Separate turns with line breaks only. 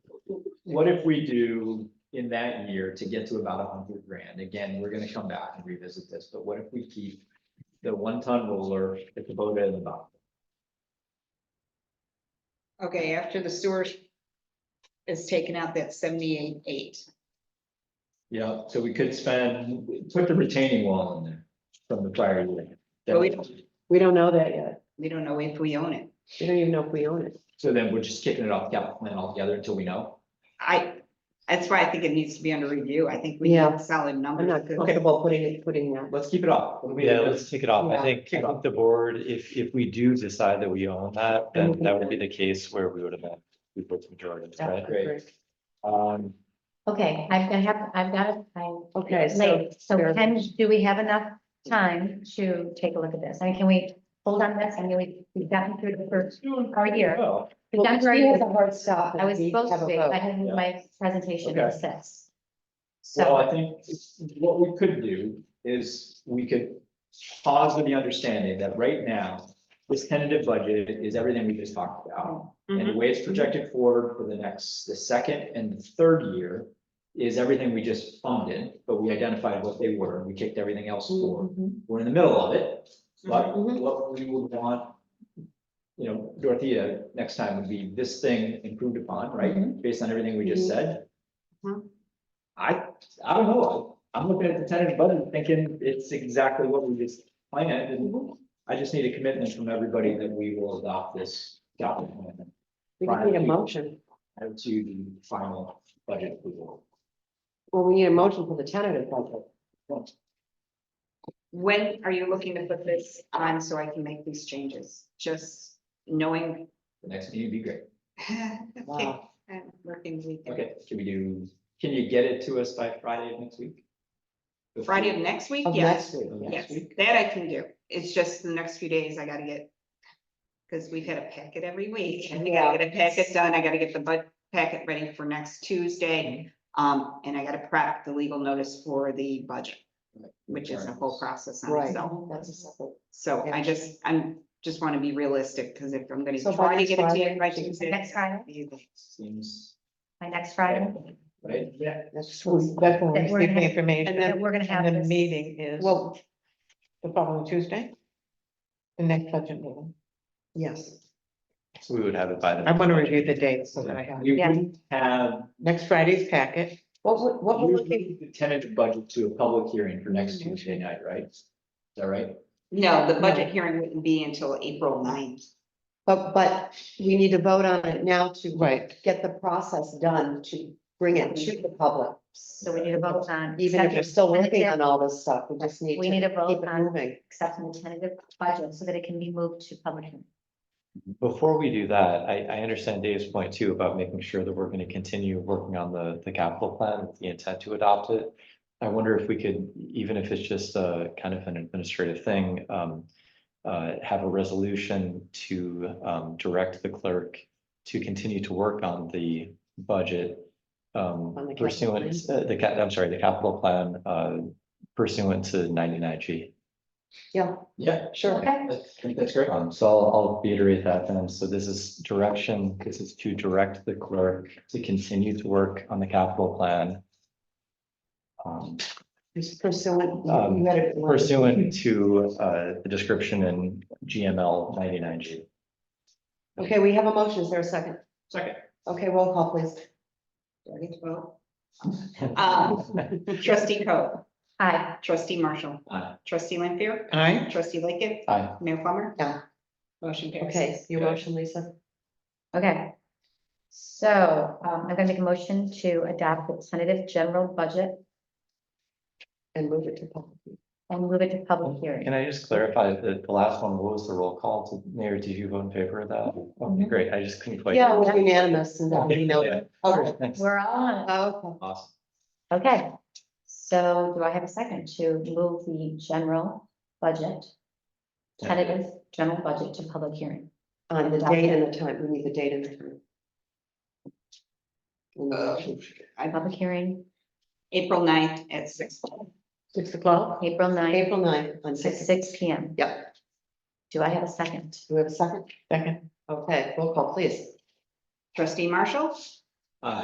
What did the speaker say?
what if we do in that year to get to about a hundred grand? Again, we're gonna come back and revisit this, but what if we keep the one-ton roller, the Kubota in the bottom?
Okay, after the sewer is taken out, that's seventy-eight, eight.
Yeah, so we could spend, put the retaining wall in there from the prior year.
But we don't-
We don't know that yet.
We don't know if we own it.
We don't even know if we own it.
So then we're just kicking it off capital plan altogether until we know.
I, that's why I think it needs to be under review. I think we
Yeah.
need solid
I'm
numbers.
not comfortable putting it, putting that.
Let's keep it off. It'll be-
Yeah, let's kick it off.
Yeah,
I think, I think the board, if, if we do decide that we own that, then that would be the case where we would have been. We put some Jordans, right?
Great.
Um,
Okay, I've got, have, I've got, it. I'm
Okay, so
late, so
there's-
can, do we have enough time to take a look at this? I mean, can we hold on this? I mean, we, we've gotten through the first, our year.
Oh,
We've gotten
Well, we
through
have a
the-
hard stop and
I was
we
supposed
have
to
a
be,
vote.
I had my presentation
Okay.
at six.
Well,
So,
I think what we could do is we could pause with the understanding that right now, this tentative budget is everything we just talked about. And the way it's projected forward for the next, the second and the third year is everything we just funded, but we identified what they were and we kicked everything else forward.
Mhm.
We're in the middle of it, but
Mhm.
what we would want, you know, Dorothea, next time would be this thing improved upon, right? Based on everything we just
Mhm.
said.
Mhm.
I, I don't know. I'm looking at the tentative budget thinking it's exactly what we just planned and I just need a commitment from everybody that we will adopt this document
We just need a motion.
to the final budget approval.
Well, we need a motion for the tentative budget.
When are you looking to put this on so I can make these changes? Just knowing.
The next meeting would be great.
Okay,
Wow.
I'm Working weekend.
Okay, can we do, can you get it to us by Friday of next week?
Friday of next week,
Of
yes.
next week,
Of
yeah.
next
Yes,
week?
that I can do. It's just the next few days I gotta get. Cause we've had a packet every week and we gotta get a packet done. I gotta get the bud packet ready for next
Mm-hmm.
Tuesday. Um, and I gotta prep the legal notice for the budget, which is a whole process on
Right,
itself.
that's a separate.
So I just, I'm, just wanna be realistic, cause if I'm gonna
So by
try to
next
get it to
Friday,
you by
Tuesday.
Tuesday.
Next Friday?
Seems,
my next Friday,
right? Yeah.
That's
Well, That's when we
That we're
receive
gonna-
the information.
and then we're gonna have
And the
this.
meeting is
Well,
the following Tuesday? The next budget meeting.
yes.
so we would have it by the.
I want to review the dates so that I have,
We
Yeah.
wouldn't have.
next Friday's packet.
What, we- what we're looking, Mm-hmm.
usually the tentative budget to a public hearing for next Tuesday night, right? Is that right?
No, the budget hearing wouldn't be until April 9th.
but, but we need to vote on it now to.
Right.
Get the process done to bring it to the public.
so we need a vote on.
Even if we're still working on
accepting
all this stuff, we just need to.
We need a vote
keep it
on-
Moving.
the tentative budget so that it can be moved to public. hearing.
Before we do that, I, I understand Dave's point too about making sure that we're going to continue working on the, the capital plan with the intent to adopt it. I wonder if we could, even if it's just a kind of an administrative thing, um, uh, have a resolution to, um, direct the clerk to continue to work on the budget.
On the
Um,
capital
pursuant, uh, the cap, I'm sorry, the capital plan, uh, pursuant to ninety-nine G.
Yeah,
Yeah,
sure.
Okay.
I think that's great.
Um, so I'll, I'll reiterate that then. So this is direction, this is to direct the clerk to continue to work on the capital plan. um,
Pursuant.
Um,
you had it-
Pursuant to, uh, the description in GML ninety-nine G.
Okay, we have a motion. Is there a second?
Second.
Okay, roll call, please.
Ready to vote?
Uh.
Um, Trustee Coe,
Hi,
trustee Marshall,
Aye.
trustee Lampier,
Aye.
trustee Lightgev,
Aye.
Mayor Plummer.
Yeah.
Motion carries.
Okay, your
Yes.
motion, Lisa.
okay. So, um, I'm gonna make a motion to adopt the tentative general budget
And move it to public.
and move it to public hearing.
Oh, Can I just clarify that the last one, what was the roll call to mayor? Did you vote in favor of that? Okay,
Mhm.
great. I just couldn't quite.
Mm-hmm. Yeah, it was unanimous and that,
Okay,
you know.
yeah.
Okay.
Thanks.
We're all on. it.
Okay,
Awesome.
Okay, so do I have a second to move the general budget? Tentative general budget to public hearing.
on the date and the time, we need the date and the time. In the motion.
Public hearing,
April 9th at six.
Six o'clock?
April ninth,
April ninth on
at
six.
six P M.
Yep.
Do I have a second?
Do we have a second?
Second.
Okay, roll call, please.
Trustee Marshall,
Uh,